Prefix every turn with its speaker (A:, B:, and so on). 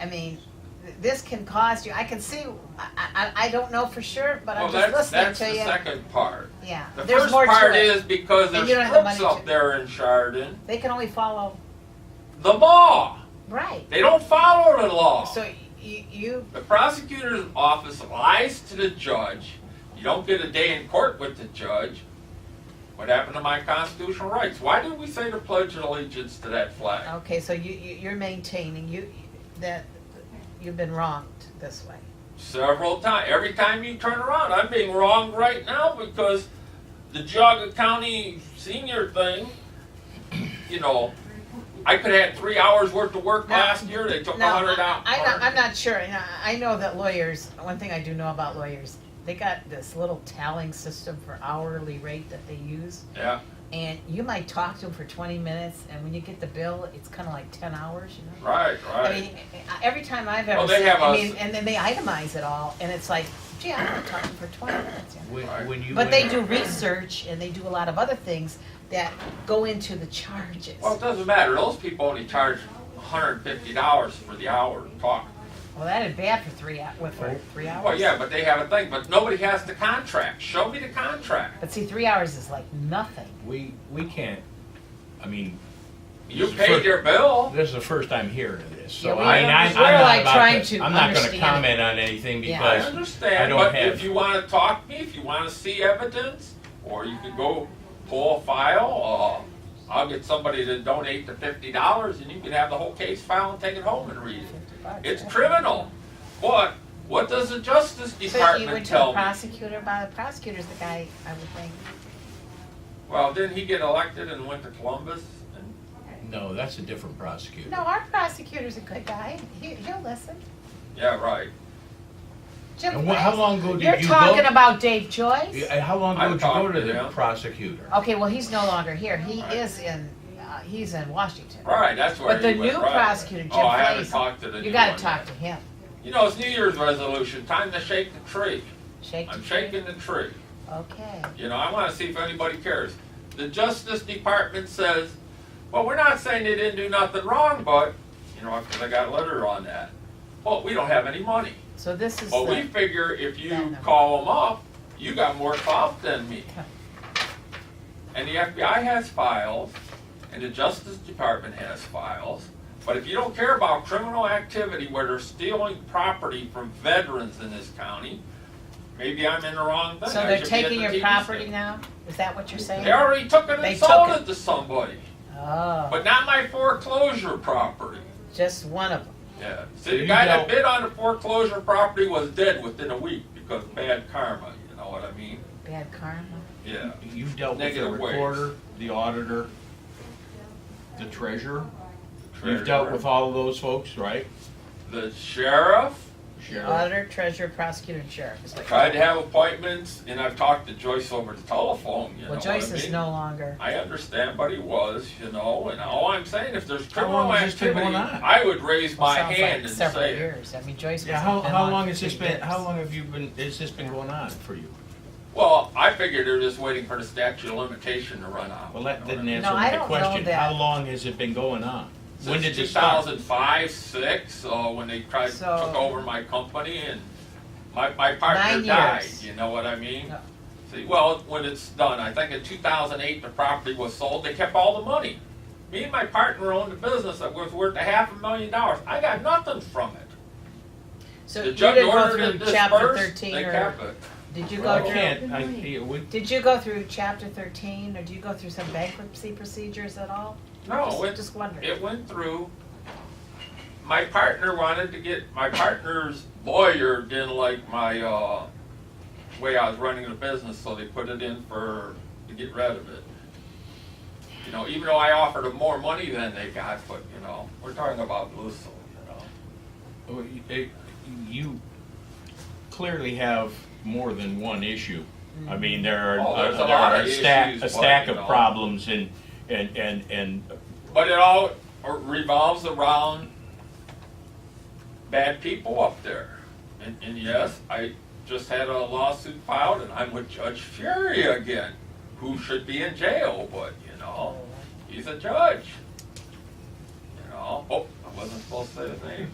A: I mean, th- this can cost you, I can see, I, I, I don't know for sure, but
B: Well,
A: I'm just
B: that's,
A: listening
B: that's
A: to
B: the
A: you.
B: second part.
A: Yeah,
B: The
A: there's
B: first
A: more
B: part
A: to it.
B: is because
A: And
B: there's
A: you don't have the
B: crooks
A: money
B: up
A: to-
B: there in Chardon.
A: They can only follow,
B: The law.
A: right,
B: They don't follow the law.
A: so you, you,
B: The prosecutor's office lies to the judge. You don't get a day in court with the judge. What happened to my constitutional rights? Why did we say to pledge allegiance to that flag?
A: okay, so you, you- you're maintaining, you, that, you've been wronged this way.
B: Several times. Every time you turn around, I'm being wronged right now because the Geauga County senior thing, you know, I could have had three hours worth of work
A: Now-
B: last year. They took a
A: No,
B: hundred out.
A: I- I'm not, I'm not sure, and I- I know that lawyers, one thing I do know about lawyers, they got this little tallying system for hourly rate that they use.
B: Yeah.
A: And you might talk to them for twenty minutes, and when you get the bill, it's kinda like ten hours, you know?
B: Right. Right.
A: I mean, I- every time I've
B: Well,
A: ever
B: they
A: seen,
B: have
A: I
B: us-
A: mean, and then they itemize it all, and it's like, gee, I'm gonna talk to them for twenty minutes, you know?
C: When,
B: Right.
C: when you
A: But they
C: went-
A: do research, and they do a lot of other things that go into the charges.
B: Well, it
A: Well,
B: doesn't matter. Those people only charge $150 for the hour to talk.
A: that is bad for three, hou- what, for three hours?
B: Oh. Well, yeah, but they have a thing, but nobody has the contract. Show me the contract.
A: But see, three hours is like nothing.
C: we we can't. I mean,
B: You
C: This is
B: paid
C: first-
B: your bill.
C: this is the first I'm hearing of this, so
A: Yeah, we-
C: I mean, I, I'm
A: we're
C: not
A: like
C: about
A: trying
C: to,
A: to
C: I'm not going to
A: understand
C: comment on anything
A: Yeah.
B: I
C: because I
B: understand,
C: don't
B: but
C: have-
B: if you want to talk to me, if you want to see evidence, or you could go pull a file, or I'll get somebody to donate the $50 and you can have the whole case file and take it home and read it. It's criminal. But what does the Justice
A: So you went
B: Department
A: to the
B: tell me?
A: prosecutor, by the prosecutor's the guy, I would think.
B: Well, didn't he get elected and went to Columbus? And
C: no, that's a different prosecutor.
A: No, our prosecutor's a good guy, he, he'll listen.
B: Yeah, right.
A: Jim
C: And wha- how long ago did
A: You're
C: you
A: talking
C: go?
A: about Dave Joyce?
C: Yeah, how long
B: I've
C: ago did you go
B: talked
C: to
B: to
C: the
B: them.
C: prosecutor?
A: Okay, well, he's no longer here, he
B: Right.
A: is in, uh, he's in Washington.
B: Right, that's where
A: But the
B: he went,
A: new
B: right.
A: prosecutor,
B: Oh, I
A: Jim
B: haven't
A: Frazee.
B: talked to the
A: You
B: new
A: gotta
B: one
A: talk
B: yet.
A: to him,
B: You know, it's New Year's resolution, time to shake the tree.
A: shake.
B: I'm
A: the tree.
B: shaking the tree.
A: Okay,
B: You know, I want to see if anybody cares. The Justice Department says, well, we're not saying they didn't do nothing wrong, but, you know, because I got a letter on that. Well, we don't have any money.
A: so this is
B: But Oh, we
A: the,
B: figure if
A: That
B: you
A: number.
B: call them up, you got more files than me. And the FBI has files, and the Justice Department has files. But if you don't care about criminal activity where they're stealing property from veterans in this county, maybe I'm in the wrong thing.
A: so
B: I
A: they're
B: should be at
A: taking
B: the
A: your
B: TV
A: property
B: stand.
A: now? Is that what you're saying?
B: They already took it
A: They
B: and sold
A: took
B: it to somebody,
A: Oh,
B: but not my foreclosure property.
A: just one of them,
B: Yeah,
C: So
B: see, the
C: you
B: guy that
C: don't-
B: bid on the foreclosure property was dead within a week because of bad karma, you know what I mean?
A: bad karma.
B: Yeah.
C: You've dealt with the
B: Negative ways.
C: recorder, the auditor, the treasurer. You've
B: Treasurer.
C: dealt with all of those folks, right?
B: The sheriff,
C: Sheriff.
A: Auditor, treasurer, prosecutor, and sheriff is what.
B: tried to have appointments, and I've talked to Joyce over the telephone, you know
A: Well,
B: what I
A: Joyce is
B: mean?
A: no longer,
B: I understand, but he was, you know, and all I'm saying, if there's
C: How
B: criminal
C: long has this been
B: activity,
C: going on?
B: I would raise
A: well,
B: my
A: sounds like
B: hand and
A: several
B: say, it.
A: years, I mean, Joyce
C: Yeah,
A: has
C: how,
A: been
C: how long
A: on
C: has
A: for
C: this
A: three
C: been,
A: years.
C: how long have you been, has this been going on for you?
B: well, I figured they're just waiting for the statute of limitation to run out.
C: Well,
B: you
C: that
B: know what I
C: didn't
B: mean?
C: answer
A: No, I
C: my
A: don't know
C: question.
A: that.
C: How long has it been going on? When did
B: Since
C: it start?
B: 2005, six, uh, when they tried,
A: So-
B: took over my company and my, my partner
A: Nine
B: died,
A: years.
B: you know what I mean?
A: Yeah.
B: See, well, when it's done, I think in 2008, the property was sold, they kept all the money. Me and my partner owned a business that was worth a half a million dollars, I got nothing from it.
A: So
B: The
A: you
B: judge
A: didn't go
B: ordered
A: through
B: it
A: chapter
B: dispersed,
A: thirteen,
B: they
A: or
B: kept it.
A: did you
C: Well,
A: go
C: I
A: through,
C: can't, I, yeah, we,
A: did you go through chapter thirteen, or do you go through some bankruptcy procedures at all?
B: No,
A: Just-
B: it
A: Just wondering.
B: It went through. My partner wanted to get, my partner's lawyer didn't like my, uh, way I was running the business, so they put it in for, to get rid of it. You know, even though I offered them more money than they got, but, you know, we're talking about Lucille, you know.
C: Well, it- You clearly have more than one issue.
A: Mm-hmm.
C: I mean, there
B: Oh,
C: are, uh,
B: there's a
C: there
B: lot
C: are
B: of
C: a stack,
B: issues,
C: a
B: but,
C: stack
B: you
C: of
B: know.
C: problems and, and, and, and
B: But it all er, revolves around bad people up there. And, and yes, I just had a lawsuit filed, and I'm with Judge Fury again, who should be in jail, but you know, he's a judge. You know, oh, I Oh, wasn't supposed to say his name.